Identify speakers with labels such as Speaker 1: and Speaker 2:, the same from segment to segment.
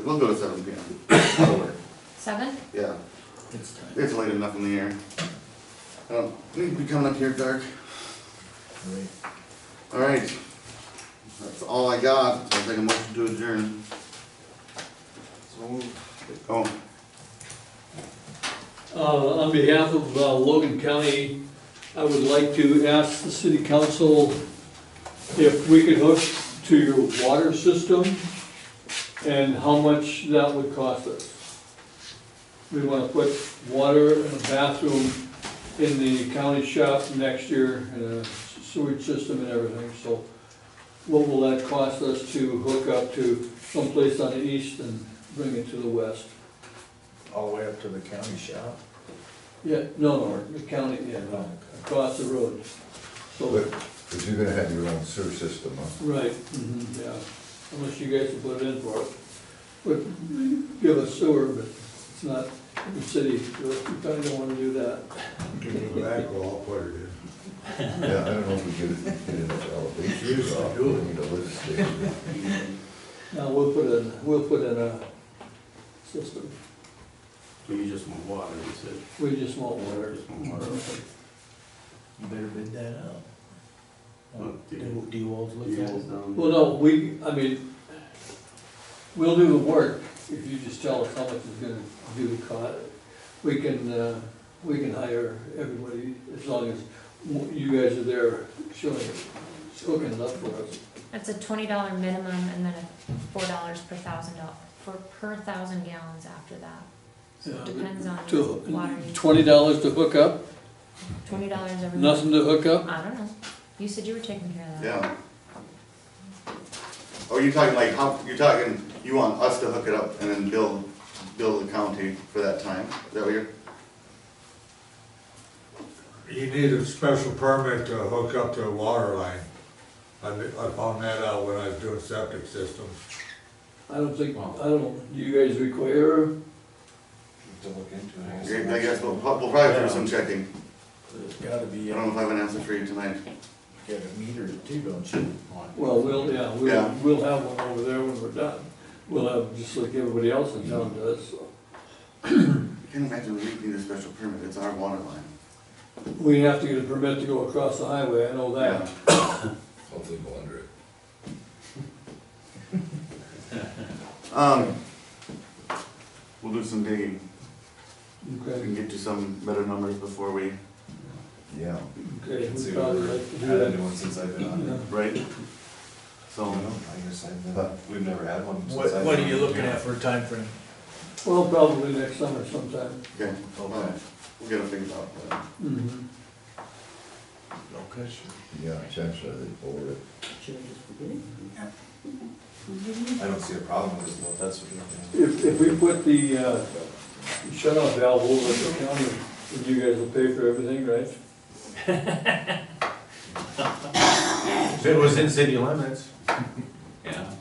Speaker 1: We'll go to seven P M. That'll work.
Speaker 2: Seven?
Speaker 1: Yeah,
Speaker 3: It's time.
Speaker 1: it's late enough in the air. I don't need to be coming up here dark.
Speaker 3: Great.
Speaker 1: All right. That's all I got. I'll take a motion to adjourn. Oh,
Speaker 4: Uh, On behalf of uh, Logan County, I would like to ask the city council if we could hook to your water system and how much that would cost us. We want to put water and a bathroom in the county shop next year and a sewage system and everything, so what will that cost us to hook up to someplace on the east and bring it to the west?
Speaker 3: All the way up to the county shop?
Speaker 4: Yeah, no, no, the county, yeah, no, across the road. So,
Speaker 5: Because you're gonna have your own sewer system, huh?
Speaker 4: right, mhm, yeah, unless you guys will put it in for it. But give us sewer, but it's not, the city, you probably don't wanna do that.
Speaker 5: Yeah, I don't know if we get it, get it at elevation.
Speaker 3: Used to
Speaker 5: drop,
Speaker 3: do it.
Speaker 5: we need a lift station.
Speaker 4: Now, we'll put in, we'll put in a system,
Speaker 1: so you just want water, you said.
Speaker 4: we just want water.
Speaker 1: Just want water.
Speaker 3: You better bid that out. Um,
Speaker 1: Well, do you-
Speaker 3: Do, do you all look
Speaker 1: You
Speaker 3: at
Speaker 1: guys
Speaker 3: it?
Speaker 1: down-
Speaker 4: Well, no, we, I mean, we'll do the work if you just tell us how much is gonna do the cost. We can, uh, we can hire everybody as long as you guys are there showing, hooking it up for us.
Speaker 2: That's a twenty dollar minimum and then a four dollars per thousand dollars for, per thousand gallons after that. So it depends on
Speaker 4: To-
Speaker 2: water, use.
Speaker 4: Twenty dollars to hook up,
Speaker 2: twenty dollars every month.
Speaker 4: nothing to hook up?
Speaker 2: I don't know. You said you were taking care of that.
Speaker 1: Yeah. Oh, you're talking like, how, you're talking, you want us to hook it up and then bill, bill the county for that time? Is that what you're?
Speaker 6: You need a special permit to hook up to a water line. I, I found that out when I was doing septic systems.
Speaker 4: I don't think, I don't, do you guys require,
Speaker 7: to look into it.
Speaker 1: I guess we'll, we'll probably do some checking.
Speaker 3: There's gotta
Speaker 1: I
Speaker 3: be, uh,
Speaker 7: Um,
Speaker 1: don't know if I have an answer for you tonight.
Speaker 3: get a meter too, don't you?
Speaker 4: well, we'll, yeah, we'll,
Speaker 1: Yeah.
Speaker 4: we'll have one over there when we're done. We'll have, just like everybody else in town does, so.
Speaker 1: I can't imagine we need a special permit, it's our water line.
Speaker 4: We have to get a permit to go across the highway, I know that.
Speaker 5: Hopefully go under it.
Speaker 1: Um, we'll do some digging, we
Speaker 4: Okay,
Speaker 1: can get you some better numbers before we,
Speaker 5: Yeah.
Speaker 4: okay,
Speaker 7: See
Speaker 4: we
Speaker 7: what
Speaker 4: probably
Speaker 7: we're-
Speaker 4: like to do
Speaker 7: Had a new
Speaker 4: that.
Speaker 7: one since I've been on it.
Speaker 1: right? So,
Speaker 7: I guess I've,
Speaker 5: Huh.
Speaker 7: uh, we've never had one since I've.
Speaker 3: What, what are
Speaker 7: been
Speaker 3: you
Speaker 7: on.
Speaker 3: looking at for a time frame?
Speaker 4: Yeah. Well, probably next summer sometime.
Speaker 1: okay,
Speaker 7: Okay,
Speaker 1: we'll get a figure out, but.
Speaker 7: Mm-hmm.
Speaker 4: Mhm.
Speaker 3: Okay, sure.
Speaker 5: Yeah, chances are they bore it.
Speaker 7: I don't see a problem with it, though, if that's what you're looking
Speaker 4: If, if we put the, uh, shut-off valve over at the county, then you guys will pay for everything, right?
Speaker 7: at. It was in city limits.
Speaker 8: Yeah.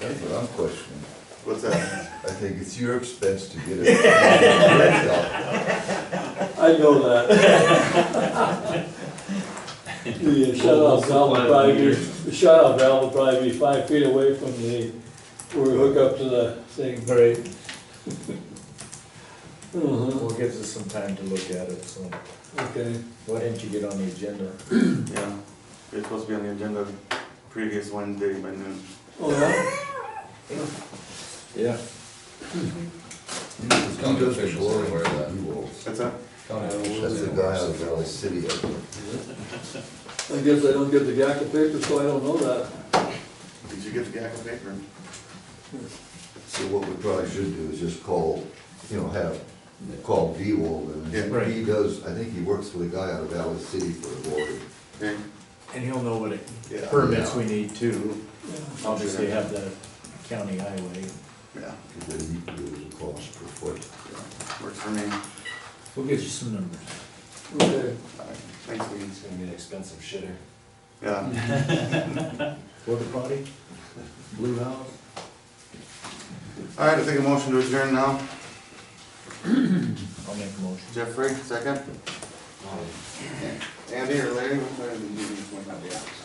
Speaker 5: That's what I'm questioning.
Speaker 1: What's that?
Speaker 5: I think it's your expense to get it.
Speaker 4: I know that. The uh, shut-off valve will probably be, the shut-off valve will probably be five feet away from the, where we hook up to the thing.
Speaker 3: Right,
Speaker 4: Mhm,
Speaker 3: well, it gives us some time to look at it, so
Speaker 4: Okay.
Speaker 3: why didn't you get on the agenda?
Speaker 1: Yeah, it's supposed to be on the agenda previous Wednesday by noon.
Speaker 4: All right.
Speaker 3: Yeah.
Speaker 5: He does the glory that he will.
Speaker 1: That's it?
Speaker 5: That's the guy out of the city. I think.
Speaker 4: I guess I don't get the gak of paper, so I don't know that.
Speaker 1: Did you get the gag of paper?
Speaker 5: So what we probably should do is just call, you know, have, call D-Wall
Speaker 1: Yeah.
Speaker 5: and
Speaker 3: Right.
Speaker 5: he does, I think he works for the guy out of Valley City for the water.
Speaker 1: Okay.
Speaker 3: And he'll know what it-
Speaker 1: Yeah.
Speaker 3: permits we need too.
Speaker 4: Yeah.
Speaker 3: Obviously have the county highway.
Speaker 1: Yeah,
Speaker 5: Because then he gives a cost per foot.
Speaker 1: works for me. All
Speaker 3: We'll get you some numbers.
Speaker 4: Okay,
Speaker 1: right, Thanks, Lee.
Speaker 7: It's gonna be an expensive shitter.
Speaker 1: Yeah,
Speaker 3: Porta potty, blue house.
Speaker 1: all right, I'll take a motion to adjourn now.
Speaker 3: I'll make a motion.
Speaker 1: Jeffrey, second.
Speaker 7: Um,
Speaker 1: Andy or Larry? which one of you is going to be out?